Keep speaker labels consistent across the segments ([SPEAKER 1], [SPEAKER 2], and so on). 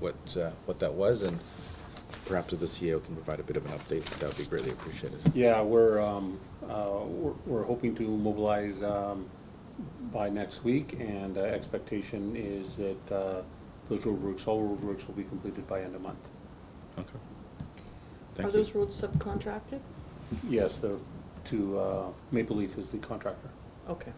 [SPEAKER 1] what, uh, what that was, and perhaps if the CEO can provide a bit of an update, that would be greatly appreciated.
[SPEAKER 2] Yeah, we're, um, uh, we're, we're hoping to mobilize, um, by next week, and uh, expectation is that, uh, those roadworks, all roadworks will be completed by end of month.
[SPEAKER 1] Okay.
[SPEAKER 3] Are
[SPEAKER 1] Thank
[SPEAKER 3] those
[SPEAKER 1] you.
[SPEAKER 3] roads subcontracted?
[SPEAKER 2] Yes, the, to, uh, Maple Leaf is the contractor.
[SPEAKER 3] Okay.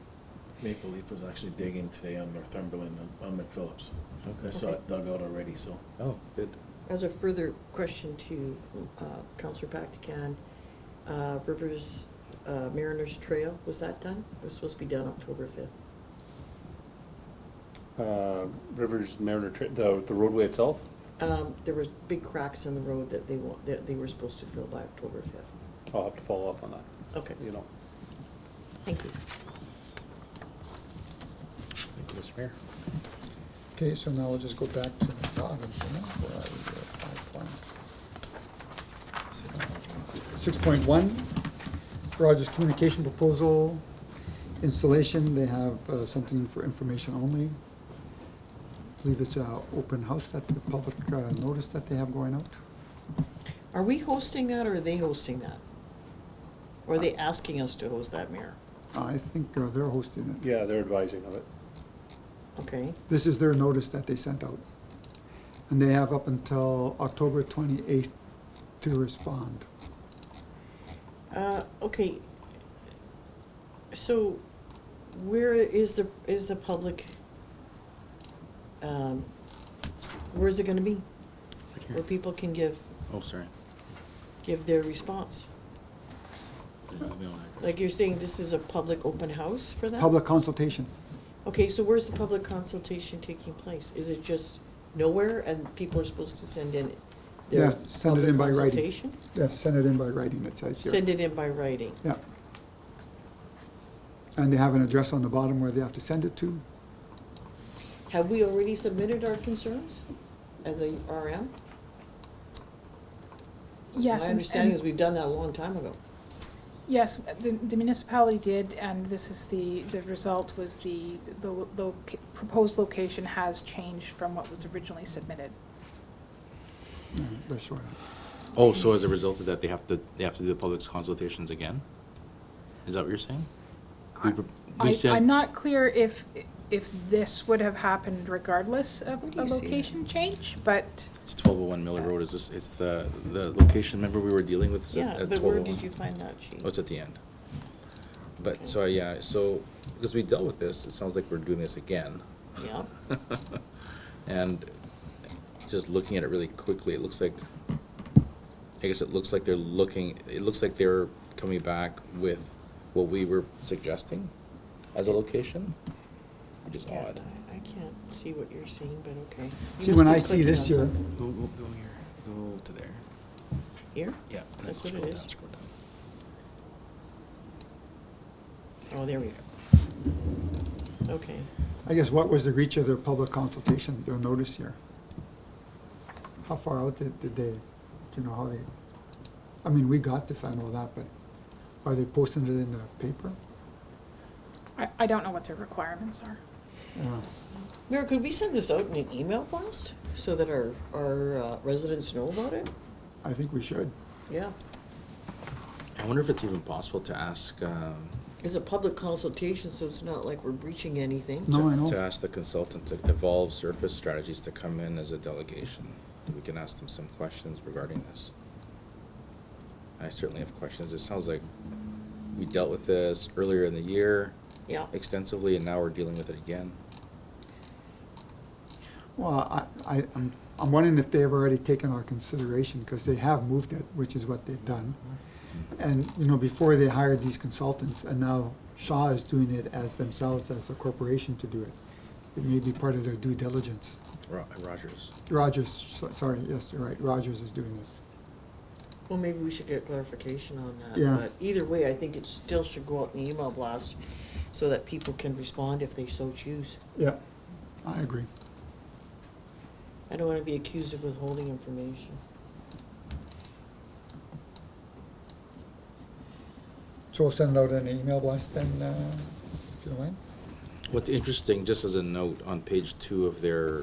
[SPEAKER 4] Maple Leaf was actually digging today on Northumberland, on- on McPhillips. I
[SPEAKER 1] Okay.
[SPEAKER 4] saw it dug out already, so.
[SPEAKER 1] Oh, good.
[SPEAKER 3] As a further question to uh, Counselor Bakhtikan, uh, Rivers uh, Mariners Trail, was that done? It was supposed to be done October 5th.
[SPEAKER 2] Uh, Rivers Mariner, Tra- the, the roadway itself,
[SPEAKER 3] Um, There was big cracks in the road that they, wa- that they were supposed to fill by October 5th.
[SPEAKER 2] I'll have to follow up on that,
[SPEAKER 3] Okay,
[SPEAKER 2] you know.
[SPEAKER 3] thank you.
[SPEAKER 1] Thank you, Mr. Mayor.
[SPEAKER 5] Okay, so now we'll just go back to the bottom, you know, where I was at, my plan. Six point one, Rogers Communication Proposal Installation, they have uh, something for information only. I Believe it's a uh, open house that the public uh, notice that they have going out.
[SPEAKER 3] Are we hosting that or are they hosting that? Or are they asking us to host that, Mayor?
[SPEAKER 5] I think uh, they're hosting it.
[SPEAKER 2] Yeah, they're advising of it.
[SPEAKER 3] Okay,
[SPEAKER 5] This is their notice that they sent out. And they have up until October twenty-eighth to respond.
[SPEAKER 3] Uh, okay. So where is the, is the public, um, where is it gonna be? Where people can give,
[SPEAKER 1] Oh, sorry.
[SPEAKER 3] give their response? Like you're saying, this is a public open house for them?
[SPEAKER 5] Public consultation.
[SPEAKER 3] Okay, so where's the public consultation taking place? Is it just nowhere and people are supposed to send in their
[SPEAKER 5] Yeah, send it in
[SPEAKER 3] public
[SPEAKER 5] by writing.
[SPEAKER 3] consultation?
[SPEAKER 5] Yeah, send it in by writing, it says here.
[SPEAKER 3] Send it in by writing.
[SPEAKER 5] Yeah. And they have an address on the bottom where they have to send it to.
[SPEAKER 3] Have we already submitted our concerns as a RM?
[SPEAKER 6] Yes.
[SPEAKER 3] My
[SPEAKER 6] and-
[SPEAKER 3] understanding
[SPEAKER 6] and-
[SPEAKER 3] is we've done that a long time ago.
[SPEAKER 6] Yes, the the municipality did, and this is the, the result was the, the lo- proposed location has changed from what was originally submitted.
[SPEAKER 5] Yeah, That's where,
[SPEAKER 1] Oh, so as a result of that, they have to, they have to do the public consultations again? Is that what you're saying? We pro- we
[SPEAKER 6] I,
[SPEAKER 1] said-
[SPEAKER 6] I'm not clear if, if this would have happened regardless of
[SPEAKER 3] Where do
[SPEAKER 6] a
[SPEAKER 3] you see that?
[SPEAKER 6] location change, but
[SPEAKER 1] It's twelve oh one Miller Road, is this, it's the, the location, remember we were dealing with this at
[SPEAKER 3] Yeah,
[SPEAKER 1] twelve oh one?
[SPEAKER 3] but where did you find that sheet?
[SPEAKER 1] Oh, it's at the end. But, so, yeah, so, because we dealt with this, it sounds like we're doing this again.
[SPEAKER 3] Yeah,
[SPEAKER 1] And just looking at it really quickly, it looks like, I guess it looks like they're looking, it looks like they're coming back with what we were suggesting as a location, which is
[SPEAKER 3] yeah,
[SPEAKER 1] odd.
[SPEAKER 3] I I can't see what you're seeing, but okay. You
[SPEAKER 5] see,
[SPEAKER 3] must
[SPEAKER 5] when
[SPEAKER 3] be
[SPEAKER 5] I see
[SPEAKER 3] clicking
[SPEAKER 5] this
[SPEAKER 3] on
[SPEAKER 5] here,
[SPEAKER 3] something.
[SPEAKER 4] Go, go, go here, go to there.
[SPEAKER 3] Here?
[SPEAKER 4] Yeah. and then
[SPEAKER 3] That's what it
[SPEAKER 4] scroll
[SPEAKER 3] is.
[SPEAKER 4] down, Scroll down.
[SPEAKER 3] Oh, there we go. Okay,
[SPEAKER 5] I guess what was the reach of their public consultation, their notice here? How far out did, did they, do you know how they, I mean, we got this, I know that, but are they posting it in the paper?
[SPEAKER 6] I, I don't know what their requirements are.
[SPEAKER 5] Yeah.
[SPEAKER 3] Mayor, could we send this out in an email blast so that our, our uh, residents know about it?
[SPEAKER 5] I think we should.
[SPEAKER 3] Yeah,
[SPEAKER 1] I wonder if it's even possible to ask, um,
[SPEAKER 3] it's a public consultation, so it's not like we're breaching anything.
[SPEAKER 5] No, Oh, I
[SPEAKER 1] to
[SPEAKER 5] know.
[SPEAKER 1] ask the consultant to evolve surface strategies to come in as a delegation. We can ask them some questions regarding this. I certainly have questions. It sounds like we dealt with this earlier in the year
[SPEAKER 3] Yeah,
[SPEAKER 1] extensively, and now we're dealing with it again.
[SPEAKER 5] Well, I, I, I'm, I'm wondering if they've already taken our consideration, because they have moved it, which is what they've done. And, you know, before they hired these consultants, and now Shaw is doing it as themselves, as a corporation to do it. It may be part of their due diligence.
[SPEAKER 1] Ro- Rogers.
[SPEAKER 5] Rogers, so- sorry, yes, you're right, Rogers is doing this.
[SPEAKER 3] well, maybe we should get clarification on that.
[SPEAKER 5] Yeah.
[SPEAKER 3] But either way, I think it still should go out in the email blast so that people can respond if they so choose.
[SPEAKER 5] Yeah. I agree.
[SPEAKER 3] I don't want to be accused of withholding information.
[SPEAKER 5] So we'll send out an email blast then, uh, if you don't mind?
[SPEAKER 1] What's interesting, just as a note, on page two of their